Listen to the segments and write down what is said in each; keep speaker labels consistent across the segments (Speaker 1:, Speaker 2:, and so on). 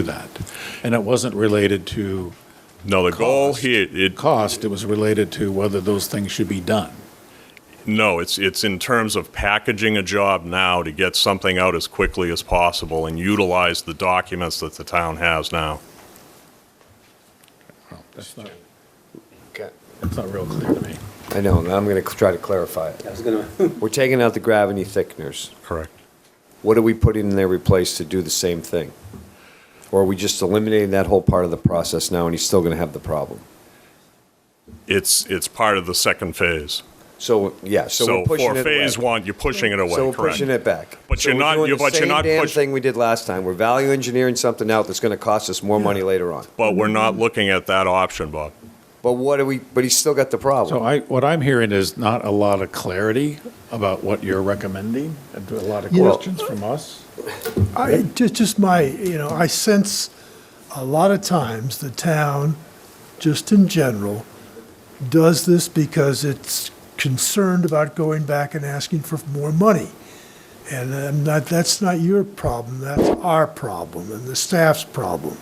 Speaker 1: to that. And it wasn't related to
Speaker 2: No, the goal
Speaker 1: Cost.
Speaker 2: here, it,
Speaker 1: cost, it was related to whether those things should be done.
Speaker 2: no, it's, it's in terms of packaging a job now to get something out as quickly as possible and utilize the documents that the town has now.
Speaker 1: That's not,
Speaker 3: Okay.
Speaker 1: that's not real clear to me.
Speaker 3: I know, now I'm going to try to clarify it.
Speaker 4: I was gonna,
Speaker 3: We're taking out the gravity thickeners.
Speaker 2: Correct.
Speaker 3: What are we putting in their replace to do the same thing? Or are we just eliminating that whole part of the process now and he's still going to have the problem?
Speaker 2: It's, it's part of the second phase.
Speaker 3: So, yeah, so
Speaker 2: So
Speaker 3: we're pushing
Speaker 2: for
Speaker 3: it away.
Speaker 2: phase one, you're pushing it away, correct?
Speaker 3: So we're pushing it back.
Speaker 2: But
Speaker 3: So
Speaker 2: you're
Speaker 3: we're
Speaker 2: not-
Speaker 3: doing
Speaker 2: you're-
Speaker 3: the
Speaker 2: but you're not
Speaker 3: Same damn
Speaker 2: push-
Speaker 3: thing we did last time. We're value engineering something out that's going to cost us more money later on.
Speaker 2: But we're not looking at that option, Bob.
Speaker 3: But what do we, but he's still got the
Speaker 1: So
Speaker 3: problem.
Speaker 1: I, what I'm hearing is not a lot of clarity about what you're recommending, and a lot of
Speaker 5: You know-
Speaker 1: questions from us.
Speaker 5: I, just, just my, you know, I sense a lot of times the town, just in general, does this because it's concerned about going back and asking for more money. And I'm not, that's not your problem, that's our problem and the staff's problem.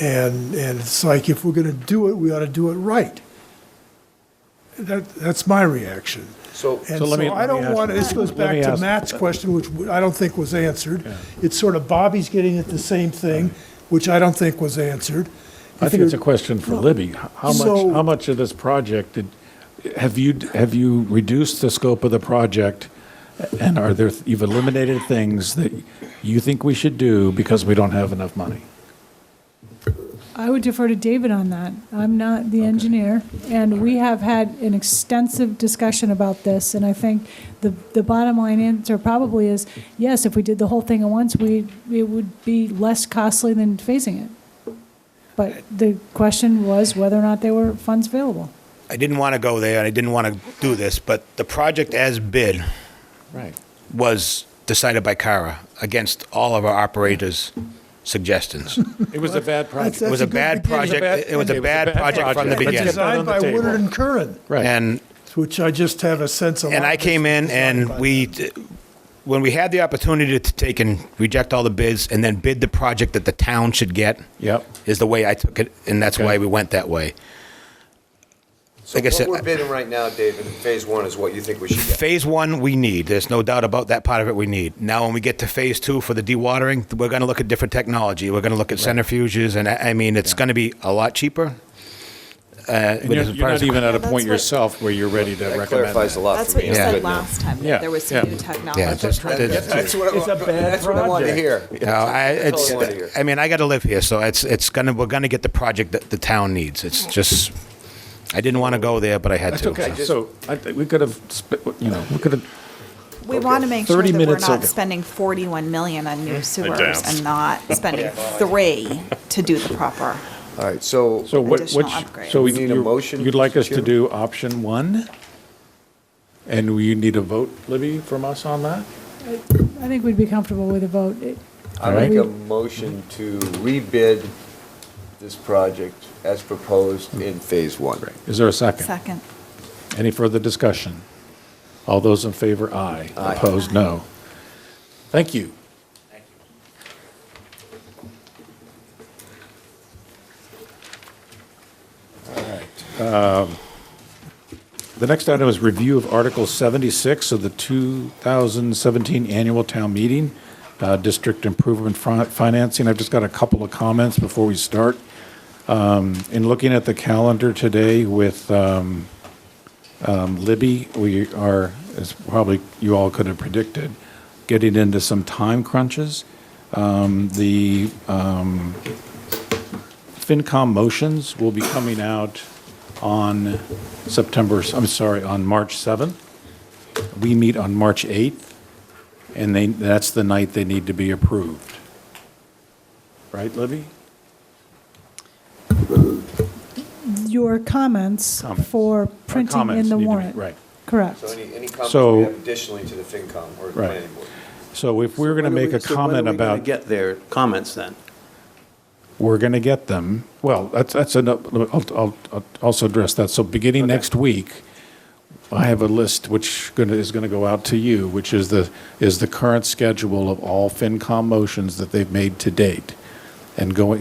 Speaker 5: And, and it's like, if we're gonna do it, we ought to do it right. That, that's my reaction.
Speaker 3: So,
Speaker 5: And
Speaker 1: So
Speaker 5: so
Speaker 1: let me-
Speaker 5: I
Speaker 1: let me
Speaker 5: don't
Speaker 1: ask-
Speaker 5: want, this goes
Speaker 1: let
Speaker 5: back
Speaker 1: me
Speaker 5: to
Speaker 1: ask-
Speaker 5: Matt's question, which I don't think was answered. It's sort of Bobby's getting at the same thing, which I don't think was answered.
Speaker 1: I
Speaker 5: If
Speaker 1: think it's a
Speaker 5: you're-
Speaker 1: question for Libby. How much,
Speaker 5: So-
Speaker 1: how much of this project did, have you, have you reduced the scope of the project? And are there, you've eliminated things that you think we should do because we don't have enough money?
Speaker 6: I would defer to David on that. I'm not the engineer, and we have had an extensive discussion about this, and I think the, the bottom line answer probably is, yes, if we did the whole thing at once, we, it would be less costly than phasing it. But the question was whether or not there were funds available.
Speaker 7: I didn't want to go there, and I didn't want to do this, but the project as bid
Speaker 1: Right.
Speaker 7: was decided by Kara against all of our operators' suggestions.
Speaker 1: It was a bad
Speaker 5: That's-
Speaker 1: project.
Speaker 7: It
Speaker 5: that's
Speaker 7: was a
Speaker 5: good
Speaker 7: bad
Speaker 5: beginning.
Speaker 7: project. It was a bad project from the
Speaker 1: Let's get
Speaker 7: beginning.
Speaker 1: that on
Speaker 5: Designed
Speaker 1: the
Speaker 5: by
Speaker 1: table.
Speaker 5: Woodard and Curran,
Speaker 1: Right.
Speaker 7: And,
Speaker 5: which I just have a sense of.
Speaker 7: and I came in,
Speaker 5: Designed by
Speaker 7: and we,
Speaker 5: them.
Speaker 7: when we had the opportunity to take and reject all the bids and then bid the project that the town should get,
Speaker 1: Yep.
Speaker 7: is the way I took it, and that's why
Speaker 1: Okay.
Speaker 7: we went that way.
Speaker 3: so
Speaker 7: like I
Speaker 3: what
Speaker 7: said-
Speaker 3: we're bidding right now, David, in phase one is what you think we should get.
Speaker 7: Phase one, we need. There's no doubt about that part of it. We need. Now, when we get to phase two for the dewatering, we're going to look at different technology. We're going to look at centrifuges, and I I mean, it's going to be a lot cheaper. Uh,
Speaker 1: And you're,
Speaker 7: with-
Speaker 1: you're not even at a point
Speaker 8: That's what-
Speaker 1: yourself where you're ready to
Speaker 3: That
Speaker 1: recommend
Speaker 3: clarifies
Speaker 1: that.
Speaker 3: a lot for me.
Speaker 8: That's what you
Speaker 7: Yeah.
Speaker 8: said
Speaker 3: Good.
Speaker 8: last time,
Speaker 1: Yeah.
Speaker 8: that there was
Speaker 1: Yeah.
Speaker 8: some new technology.
Speaker 7: yeah, just,
Speaker 3: That's what I-
Speaker 1: It's a bad
Speaker 3: That's what I wanted to hear.
Speaker 1: project.
Speaker 7: you know, I,
Speaker 3: That's
Speaker 7: it's,
Speaker 3: all I wanted to hear.
Speaker 7: I mean, I got to live here, so it's it's gonna we're gonna get the project that the town needs. It's just, I didn't want to go there, but I had
Speaker 1: That's
Speaker 7: to.
Speaker 1: okay.
Speaker 7: so.
Speaker 1: So I, think we could have, sp- you know, we could have,
Speaker 8: We want to make sure
Speaker 1: 30
Speaker 8: that we're
Speaker 1: minutes
Speaker 8: not
Speaker 1: ago.
Speaker 8: spending 41 million on new sewers
Speaker 2: doubt.
Speaker 8: and not spending three to do the proper.
Speaker 3: All right, so,
Speaker 1: so what,
Speaker 8: Additional
Speaker 1: which,
Speaker 8: upgrades.
Speaker 1: so
Speaker 3: We need a
Speaker 1: you-
Speaker 3: motion,
Speaker 1: You'd like us to
Speaker 3: Chairman?
Speaker 1: do option one? And we need a vote, Libby, from us on that?
Speaker 6: I think we'd be comfortable with a vote. It-
Speaker 3: I
Speaker 1: Alright.
Speaker 3: make a motion to rebid this project as proposed in phase one.
Speaker 1: Is there a second?
Speaker 8: Second.
Speaker 1: Any further discussion? All those in favor, aye.
Speaker 3: Aye.
Speaker 1: Opposed, no. Thank you. um, The next item is review of Article 76 of the 2017 Annual Town Meeting, uh, District Improvement Fin- Financing. I've just got a couple of comments before we start. Um, In looking at the calendar today with um, um, Libby, we are, as probably you all could have predicted, getting into some time crunches. Um, The um, FinCom motions will be coming out on September, I'm sorry, on March 7th. We meet on March 8th, and they, that's the night they need to be approved. Right, Libby?
Speaker 6: Your comments
Speaker 1: Comments. Our
Speaker 6: for printing
Speaker 1: comments
Speaker 6: in the
Speaker 1: need to be-
Speaker 6: warrant.
Speaker 1: Right.
Speaker 6: Correct.
Speaker 3: So any, any comments
Speaker 1: So-
Speaker 3: we have additionally to the FinCom or the
Speaker 1: Right.
Speaker 3: planning board?
Speaker 1: So if we're going to make a comment about.
Speaker 4: Get their comments then.
Speaker 1: We're going to get them. Well, that's, that's, an- I'll, I'll, I'll also address that. So beginning next week, I have a list which gonna- is going to go out to you, which is the, is the current schedule of all FinCom motions that they've made to date. and going,